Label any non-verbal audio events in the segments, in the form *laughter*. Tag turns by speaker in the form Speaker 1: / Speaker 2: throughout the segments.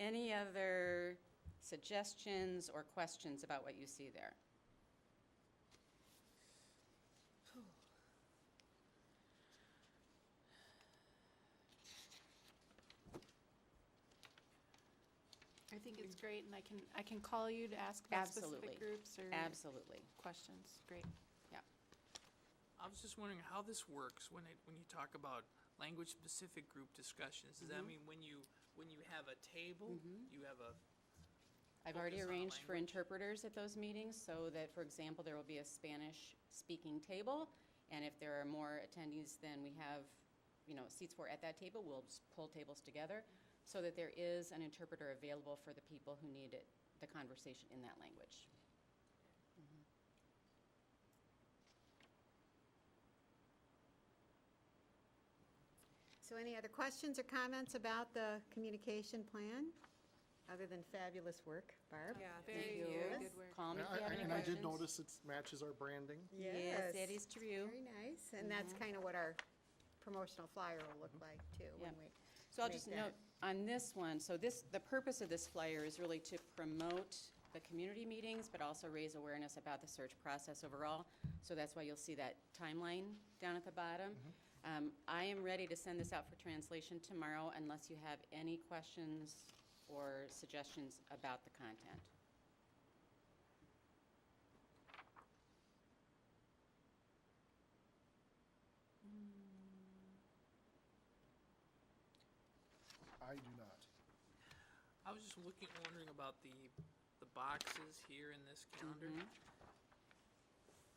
Speaker 1: Any other suggestions or questions about what you see there?
Speaker 2: I think it's great, and I can, I can call you to ask about
Speaker 1: Absolutely.
Speaker 2: specific groups or
Speaker 1: Absolutely,
Speaker 2: questions. Great.
Speaker 1: yeah.
Speaker 3: I was just wondering how this works when it, when you talk about language-specific group discussions. Does that mean when you, when you have a table, you have a,
Speaker 1: I've already
Speaker 3: Focus on
Speaker 1: arranged for
Speaker 3: language.
Speaker 1: interpreters at those meetings, so that, for example, there will be a Spanish-speaking table, and if there are more attendees than we have, you know, seats for at that table, we'll just pull tables together, so that there is an interpreter available for the people who need it, the conversation in that language.
Speaker 4: So any other questions or comments about the communication plan, other than fabulous work, Barb?
Speaker 5: Yeah,
Speaker 2: Very
Speaker 1: Yes.
Speaker 2: good work.
Speaker 1: Call me if
Speaker 6: I-
Speaker 1: you have
Speaker 6: I-
Speaker 1: any
Speaker 6: And I did
Speaker 1: questions.
Speaker 6: notice it matches our branding.
Speaker 1: Yes, that is true.
Speaker 4: Very nice, and that's
Speaker 5: Mm-hmm.
Speaker 4: kind of what our promotional flyer will look like, too,
Speaker 1: Yeah.
Speaker 4: when we.
Speaker 1: So I'll
Speaker 4: make
Speaker 1: just
Speaker 4: that.
Speaker 1: note on this one, so this, the purpose of this flyer is really to promote the community meetings, but also raise awareness about the search process overall. So that's why you'll see that timeline down at the bottom. Um, I am ready to send this out for translation tomorrow unless you have any questions or suggestions about the content.
Speaker 6: I do not.
Speaker 3: I was just looking, wondering about the, the boxes here in this calendar.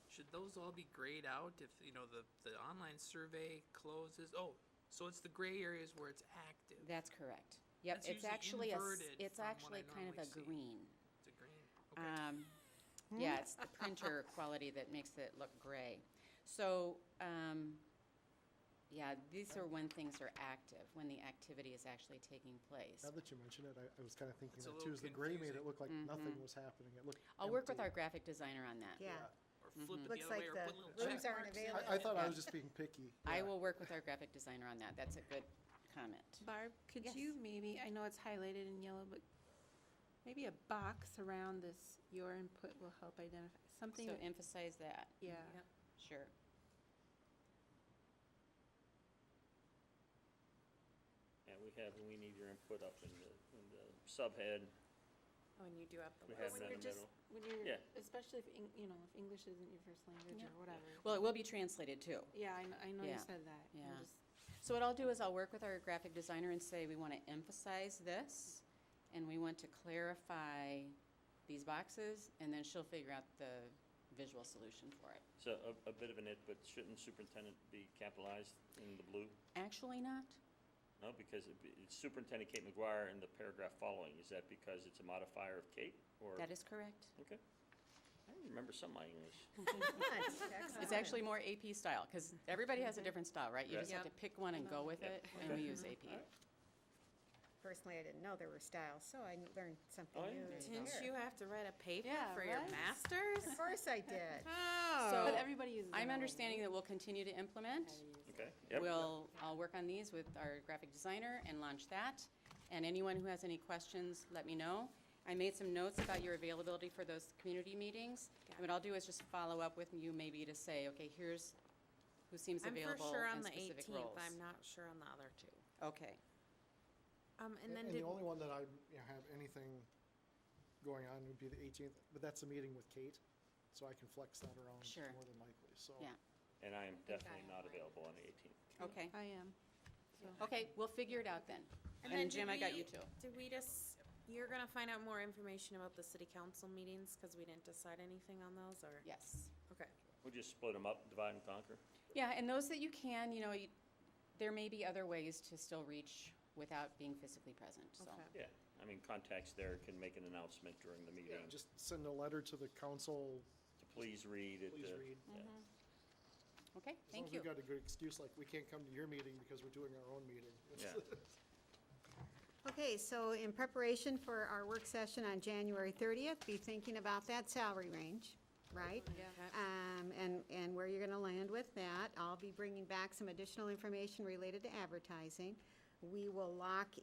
Speaker 3: Should those all be grayed out if, you know, the, the online survey closes? Oh, so it's the gray areas where it's active.
Speaker 1: That's correct. Yep,
Speaker 3: That's
Speaker 1: it's
Speaker 3: usually
Speaker 1: actually, a s-
Speaker 3: inverted
Speaker 1: it's
Speaker 3: from what I
Speaker 1: actually kind of
Speaker 3: normally
Speaker 1: a
Speaker 3: see.
Speaker 1: green.
Speaker 3: It's a green, okay.
Speaker 1: Um,
Speaker 5: Hmm?
Speaker 4: Mm.
Speaker 1: Yeah, it's the printer quality that makes it look gray. So, um, yeah, these are when things are active, when the activity is actually taking place.
Speaker 6: Now that you mention it, I, I was kind of thinking
Speaker 3: It's a
Speaker 6: that
Speaker 3: little
Speaker 6: too, is the gray
Speaker 3: confusing.
Speaker 6: made it look like nothing was happening. It looked
Speaker 1: Mm-hmm. I'll work with our
Speaker 6: empty.
Speaker 1: graphic designer on that.
Speaker 4: *laughs* Yeah,
Speaker 3: Or flip it the other
Speaker 4: Looks
Speaker 3: way,
Speaker 4: like
Speaker 3: or
Speaker 4: the
Speaker 3: put little
Speaker 4: rooms
Speaker 3: check
Speaker 4: aren't
Speaker 3: marks in
Speaker 4: available.
Speaker 3: it.
Speaker 6: I, I thought I was just being picky.
Speaker 1: *laughs* I
Speaker 6: Yeah.
Speaker 1: will work with our graphic designer on that. That's a good comment.
Speaker 2: Barb, could
Speaker 1: Yes.
Speaker 2: you maybe, I know it's highlighted in yellow, but maybe a box around this, your input will help identify, something,
Speaker 1: So
Speaker 2: that-
Speaker 1: emphasize that.
Speaker 2: yeah.
Speaker 1: Sure.
Speaker 7: And we have, we need your input up in the, in the subhead.
Speaker 5: When you do have the
Speaker 7: We have
Speaker 5: list.
Speaker 2: When
Speaker 7: that
Speaker 2: you're
Speaker 7: in the
Speaker 2: just,
Speaker 7: middle.
Speaker 2: when
Speaker 7: Yeah.
Speaker 2: you're, especially if, Eng- you know, if English isn't your first language or whatever.
Speaker 1: Well, it will be translated too.
Speaker 2: Yeah, I, kn- I know
Speaker 1: Yeah.
Speaker 2: you said that. I'm
Speaker 1: Yeah.
Speaker 2: just-
Speaker 1: So what I'll do is I'll work with our graphic designer and say, we want to emphasize this, and we want to clarify these boxes, and then she'll figure out the visual solution for it.
Speaker 7: So a, a bit of an it, but shouldn't superintendent be capitalized in the blue?
Speaker 1: Actually not?
Speaker 7: No, because it- it's Superintendent Kate McGuire in the paragraph following. Is that because it's a modifier of Kate or?
Speaker 1: That is correct.
Speaker 7: Okay. I remember some of my
Speaker 1: *laughs*
Speaker 7: English.
Speaker 1: It's actually more AP style, because everybody has a different style, right? You
Speaker 7: Right.
Speaker 1: just have to pick one and go with
Speaker 7: Yeah.
Speaker 1: it, and we use AP.
Speaker 4: personally, I didn't know there were styles, so I learned something
Speaker 7: Oh, yeah.
Speaker 4: new.
Speaker 5: Didn't you have to write a paper
Speaker 2: Yeah,
Speaker 5: for your
Speaker 2: right?
Speaker 5: masters?
Speaker 4: Of course I
Speaker 5: *laughs*
Speaker 4: did.
Speaker 2: But
Speaker 1: So
Speaker 2: everybody uses.
Speaker 1: I'm
Speaker 2: yellow,
Speaker 1: understanding that we'll continue to implement.
Speaker 7: Okay. Yep.
Speaker 1: We'll, I'll work on these with our graphic designer and launch that. And anyone who has any questions, let me know. I made some notes about your availability for those community meetings. And what I'll do is just follow up with you maybe to say, okay, here's who seems
Speaker 5: I'm for
Speaker 1: available
Speaker 5: sure
Speaker 1: in
Speaker 5: on the
Speaker 1: specific
Speaker 5: 18th.
Speaker 1: roles.
Speaker 5: I'm not sure on the other two.
Speaker 1: Okay,
Speaker 5: Um, and
Speaker 6: And
Speaker 5: then
Speaker 6: and the
Speaker 5: did,
Speaker 6: only one that I you know, have anything going on would be the eighteenth, but that's a meeting with Kate, so I can flex that around
Speaker 1: Sure.
Speaker 6: more than likely, so.
Speaker 1: yeah,
Speaker 7: And I am definitely not
Speaker 5: have mine.
Speaker 7: available on the 18th.
Speaker 1: okay.
Speaker 2: right? I am.
Speaker 1: Okay, we'll figure it out then.
Speaker 5: and then
Speaker 1: And Jim, I
Speaker 5: did
Speaker 1: got
Speaker 5: we-
Speaker 1: you too.
Speaker 5: Did we just, you're gonna find out more information about the city council meetings, cause we didn't decide anything on those, or?
Speaker 1: Yes.
Speaker 5: Okay.
Speaker 7: We'll just split them up, divide and conquer.
Speaker 1: Yeah, and those that you can, you know, you- there may be other ways to still reach without being physically present, so.
Speaker 5: Okay.
Speaker 7: Yeah. I mean, contacts there can make an announcement during the
Speaker 6: Yeah,
Speaker 7: meeting.
Speaker 6: just send a letter to the council,
Speaker 7: to Please read it.
Speaker 6: please
Speaker 7: uh,
Speaker 6: read.
Speaker 7: yeah.
Speaker 1: Okay,
Speaker 6: As long
Speaker 1: thank
Speaker 6: as we've
Speaker 1: you.
Speaker 6: got a good excuse, like, we can't come to your meeting because we're doing our own meeting.
Speaker 7: Yeah.
Speaker 4: Okay, so in preparation for our work session on January 30th, be thinking about that salary range, right?
Speaker 5: Yeah.
Speaker 4: Um, and, and where you're gonna land with that. I'll be bringing back some additional information related to advertising. We will lock